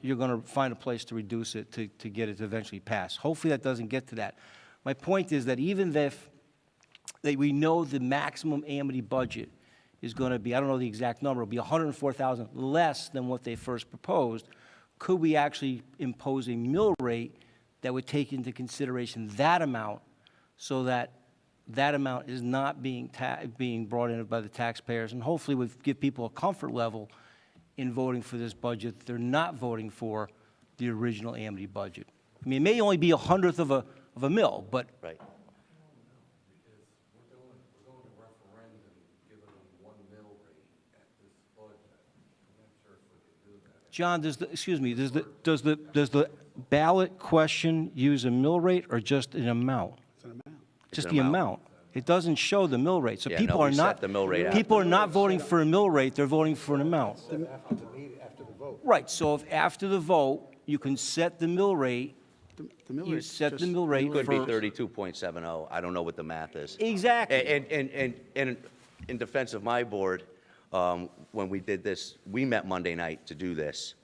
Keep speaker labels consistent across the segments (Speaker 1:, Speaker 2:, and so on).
Speaker 1: you're going to find a place to reduce it, to, to get it to eventually pass. Hopefully, that doesn't get to that. My point is that even if, that we know the maximum amity budget is going to be, I don't know the exact number, it'll be 104,000 less than what they first proposed, could we actually impose a mill rate that would take into consideration that amount so that that amount is not being ta, being brought in by the taxpayers? And hopefully would give people a comfort level in voting for this budget, they're not voting for the original amity budget. I mean, it may only be a hundredth of a, of a mill, but
Speaker 2: Right.
Speaker 1: John, does the, excuse me, does the, does the, does the ballot question use a mill rate or just an amount? It's an amount. Just
Speaker 2: It's an
Speaker 1: the
Speaker 2: amount.
Speaker 1: amount. It doesn't show the mill rate, so
Speaker 2: Yeah, no,
Speaker 1: people are
Speaker 2: we set
Speaker 1: not.
Speaker 2: the mill rate after.
Speaker 1: People are not voting for a mill rate, they're voting for an amount. After the meeting, after the vote. Right, so if after the vote, you can set the mill rate,
Speaker 3: The- the mill
Speaker 1: you
Speaker 3: rate's
Speaker 1: set the
Speaker 3: just-
Speaker 1: mill rate
Speaker 2: It
Speaker 1: for.
Speaker 2: could be 32.70, oh. I don't know what the math is.
Speaker 1: Exactly.
Speaker 2: And, and, and, and in defense of my board, um, when we did this, we met Monday night to do this.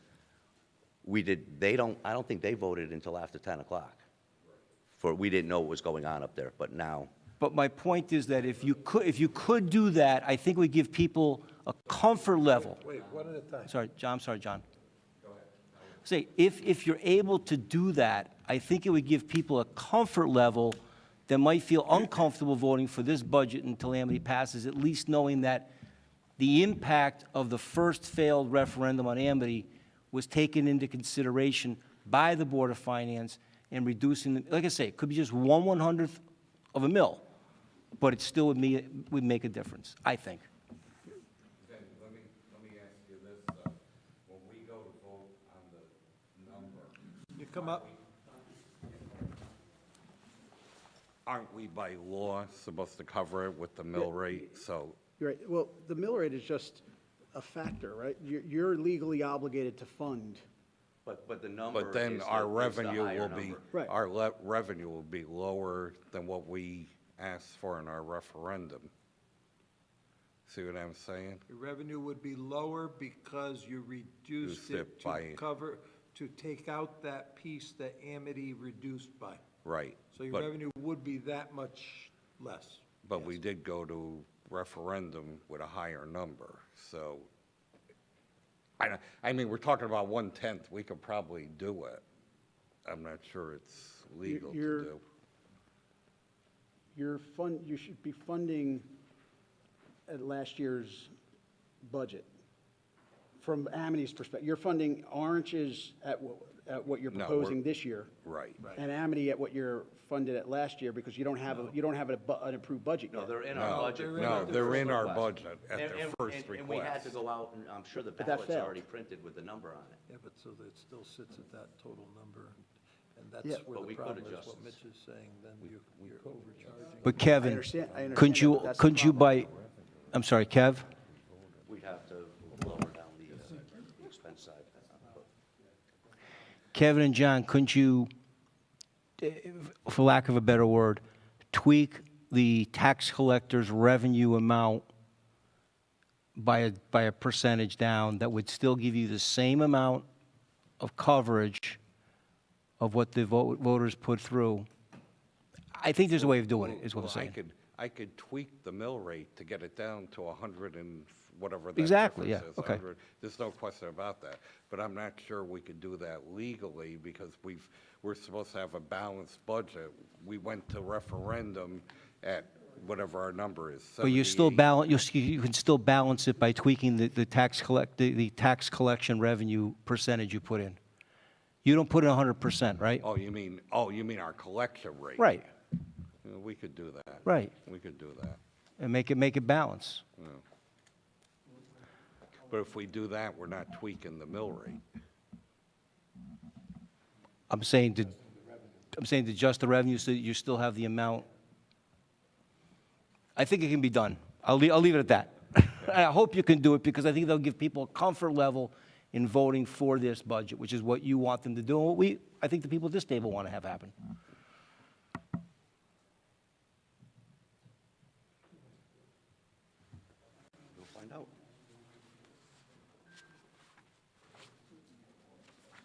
Speaker 2: We did, they don't, I don't think they voted until after 10 o'clock. For, we didn't know what was going on up there, but now,
Speaker 1: But my point is that if you could, if you could do that, I think we give people a comfort level. Wait, one at a time. Sorry, John, I'm sorry, John. Say, if, if you're able to do that, I think it would give people a comfort level that might feel uncomfortable voting for this budget until Amity passes, at least knowing that the impact of the first failed referendum on Amity was taken into consideration by the Board of Finance and reducing, the- like I say, it could be just one one-hundredth of a mill, but it still would me, would make a difference, I think.
Speaker 4: Then, let me, let me ask you this, though. When we go to vote on the number. You come up. Aren't we by law supposed to cover it with the mill rate? So
Speaker 3: You're right, well, the mill rate is just a factor, right? You're, you're legally obligated to fund.
Speaker 2: but, but the number
Speaker 4: But then
Speaker 2: is the-
Speaker 4: our
Speaker 2: is the
Speaker 4: revenue
Speaker 2: higher
Speaker 4: will be,
Speaker 2: number.
Speaker 3: Right.
Speaker 4: our le- revenue will be lower than what we asked for in our referendum. See what I'm saying?
Speaker 5: Your revenue would be lower because you reduced
Speaker 4: Reduced it
Speaker 5: it to
Speaker 4: by-
Speaker 5: cover, to take out that piece that Amity reduced by.
Speaker 4: Right.
Speaker 5: So your
Speaker 4: But-
Speaker 5: revenue would be that much less.
Speaker 4: But we did go to referendum with a higher number, so, I, don't- I mean, we're talking about one-tenth, we could probably do it. I'm not sure it's legal to
Speaker 3: you're-
Speaker 4: do.
Speaker 3: You're fund, you should be funding at last year's budget. From Amity's perspective, you're funding Orange's at, wh- at what you're
Speaker 4: No, we're-
Speaker 3: proposing this year.
Speaker 4: Right. Right.
Speaker 3: And Amity at what you're funded at last year, because you don't have, a you don't have a bu- an approved budget yet.
Speaker 2: No, they're in
Speaker 4: No,
Speaker 2: our budget.
Speaker 4: they're in our- they're in our budget
Speaker 2: And-
Speaker 4: at their
Speaker 2: and-
Speaker 4: first
Speaker 2: and- And we had
Speaker 4: request.
Speaker 2: to go out, and I'm sure the
Speaker 3: that
Speaker 2: ballot's
Speaker 3: failed.
Speaker 2: already printed with the number on it.
Speaker 5: Yeah, but so that still sits at that total number, and
Speaker 3: Yeah.
Speaker 5: that's
Speaker 2: But
Speaker 5: where
Speaker 2: we
Speaker 5: the
Speaker 2: could
Speaker 5: problem is,
Speaker 2: adjust
Speaker 5: what
Speaker 2: this.
Speaker 5: Mitch is saying, then you're you're overcharging.
Speaker 1: But Kevin,
Speaker 3: understand- I understand
Speaker 1: couldn't
Speaker 3: that,
Speaker 1: you,
Speaker 3: but that's the
Speaker 1: couldn't you
Speaker 3: problem.
Speaker 1: by, I'm sorry, Kev?
Speaker 2: We'd have to lower down the uh, the expense side.
Speaker 1: Kevin and John, couldn't you, eh, for lack of a better word, tweak the tax collector's revenue amount by a, by a percentage down that would still give you the same amount of coverage of what the vo- voters put through? I think there's a way of doing it, is what I'm
Speaker 4: Well, I
Speaker 1: saying.
Speaker 4: could, I could tweak the mill rate to get it down to a hundred and whatever that
Speaker 1: Exactly,
Speaker 4: difference
Speaker 1: yeah,
Speaker 4: is,
Speaker 1: okay.
Speaker 4: 100. There's no question about that, but I'm not sure we could do that legally because we've, we're supposed to have a balanced budget. We went to referendum at whatever our number is,
Speaker 1: But you still
Speaker 4: 78.
Speaker 1: balance, you, s- you can still balance it by tweaking the, the tax collect, the, the tax collection revenue percentage you put in. You don't put in hundred percent, right?
Speaker 4: Oh, you mean, oh, you mean our collection rate?
Speaker 1: Right.
Speaker 4: Yeah, We could do that.
Speaker 1: Right.
Speaker 4: We could do that.
Speaker 1: and make it, make it balance.
Speaker 4: But if we do that, we're not tweaking the mill rate.
Speaker 1: I'm saying to, I'm saying to adjust the revenue so that you still have the amount. I think it can be done. I'll, lea- I'll leave it at that. I hope you can do it because I think they'll give people a comfort level in voting for this budget, which is what you want them to do and what we, I think the people at this table want to have happen.